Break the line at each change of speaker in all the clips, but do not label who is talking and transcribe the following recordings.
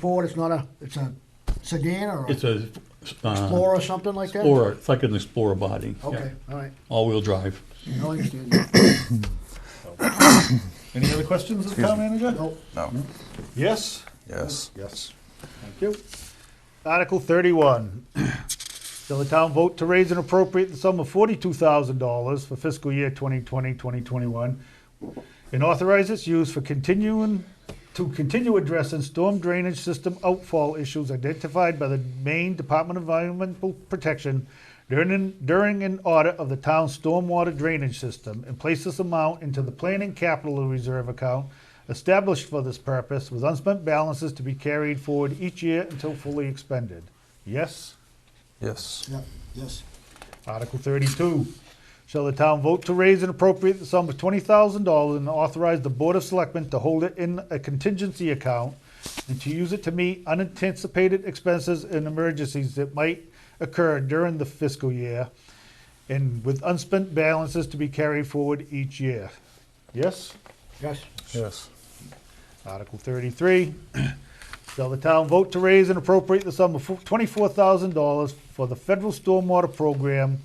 Ford, it's not a, it's a sedan or a
It's a, uh,
Explorer or something like that?
Explorer, it's like an Explorer body. yeah.
Okay, all right,
All-wheel drive.
I understand that.
Any other questions of the town manager?
No,
No.
Yes?
Yes.
Yes. Thank you. Article thirty-one, shall the town vote to raise an appropriate the sum of forty-two thousand dollars for fiscal year 2020-2021, and authorize its use for continuing, to continue addressing storm drainage system outfall issues identified by the Maine Department of Environmental Protection during, during an audit of the town's stormwater drainage system, and place this amount into the planning capital reserve account established for this purpose with unspent balances to be carried forward each year until fully expended. Yes?
Yes.
yeah, yes,
Article thirty-two, shall the town vote to raise and appropriate the sum of twenty thousand dollars and authorize the Board of Selectmen to hold it in a contingency account and to use it to meet unanticipated expenses and emergencies that might occur during the fiscal year and with unspent balances to be carried forward each year. Yes?
yes,
Yes.
Article thirty-three, shall the town vote to raise and appropriate the sum of twenty-four thousand dollars for the federal stormwater program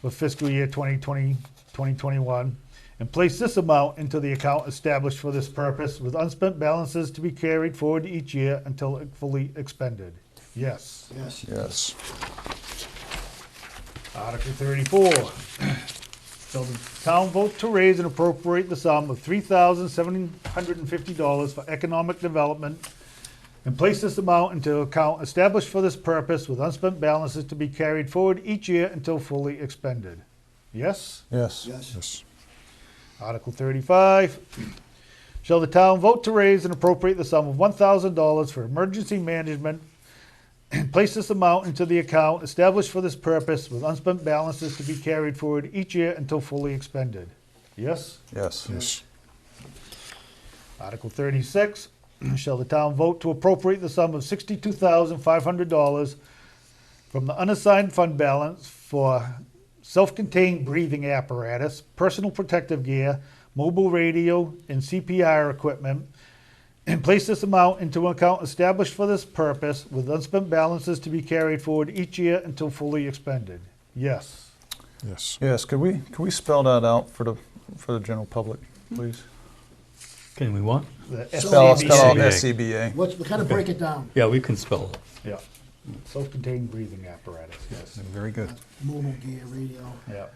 for fiscal year 2020, 2021, and place this amount into the account established for this purpose with unspent balances to be carried forward each year until fully expended. Yes.
yes,
Yes.
Article thirty-four. Shall the town vote to raise and appropriate the sum of three thousand seven hundred and fifty dollars for economic development and place this amount into account established for this purpose with unspent balances to be carried forward each year until fully expended? Yes?
Yes.
Yes.
Yes.
Article thirty-five. Shall the town vote to raise and appropriate the sum of one thousand dollars for emergency management and place this amount into the account established for this purpose with unspent balances to be carried forward each year until fully expended? Yes?
Yes. Yes.
Article thirty-six, shall the town vote to appropriate the sum of sixty-two thousand five hundred dollars from the unassigned fund balance for self-contained breathing apparatus, personal protective gear, mobile radio, and CPR equipment, and place this amount into an account established for this purpose with unspent balances to be carried forward each year until fully expended? Yes.
Yes. Yes. Could we could we spell that out for the for the general public, please?
Can we what?
The
Spell
SCBA.
spell out E
SCBA.
SCBA.
what's, we kind of break it down,
Yeah, we can spell it.
Yeah, self-contained breathing apparatus, yes,
Very good.
mobile gear, radio,
yeah.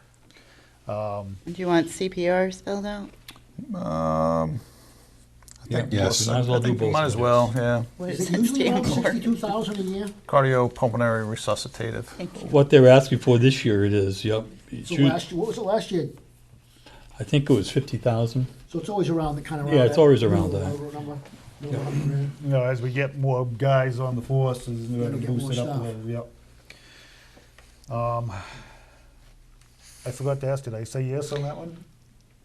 Do you want CPR spelled out?
Um. I think
Yeah,
yes.
might as well
I think
do
we Might
both.
as well. Yeah.
What
is
does
it
that
usually around
stand for?
sixty-two thousand a year?
Cardiopulmonary resuscitative.
Thank you.
What they're asking for this year it is, yep. It's
So
huge.
last, what was it last year?
I think it was fifty thousand.
So it's always around the kind of.
Yeah, it's always around that.
that.
you know, as we get more guys on the force, is we're
Gotta
gonna
get
boost
more
it up a
staff.
little, yep. Um, I forgot to ask, did I say yes on that one?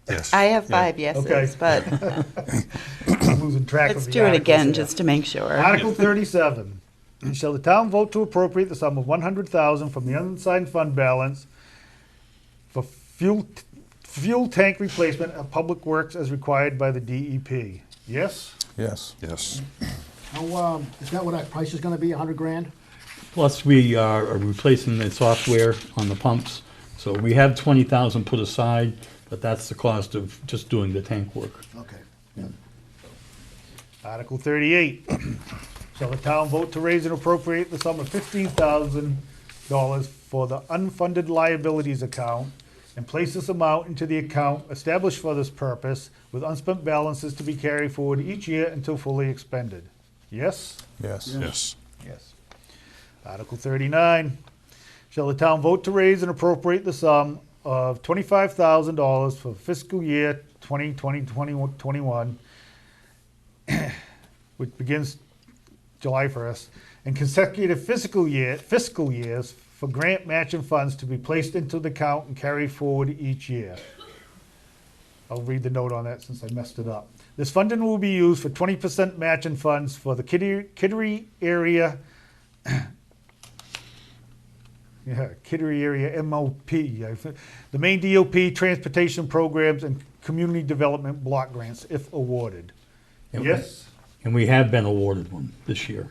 Yes.
I have five
Okay.
yeses, but
I'm losing track of
let's
the
do it
articles
again
here.
just to make sure.
Article thirty-seven, shall the town vote to appropriate the sum of one hundred thousand from the unassigned fund balance for fuel, fuel tank replacement of public works as required by the DEP? Yes?
Yes. Yes.
How, um, is that what our price is gonna be, a hundred grand?
Plus, we are replacing the software on the pumps. So we have twenty thousand put aside, but that's the cost of just doing the tank work.
Okay,
Article thirty-eight, shall the town vote to raise and appropriate the sum of fifteen thousand dollars for the unfunded liabilities account and place this amount into the account established for this purpose with unspent balances to be carried forward each year until fully expended? Yes?
Yes. Yes.
Yes. Article thirty-nine, shall the town vote to raise and appropriate the sum of twenty-five thousand dollars for fiscal year 2020 2021, which begins July first, and consecutive fiscal year, fiscal years for grant matching funds to be placed into the account and carried forward each year. I'll read the note on that since I messed it up. This funding will be used for twenty percent matching funds for the Kittery, Kittery area. Yeah, Kittery area MOP, I thi- the main DOP transportation programs and community development block grants if awarded.
Yeah,
Yes?
And we have been awarded one this year.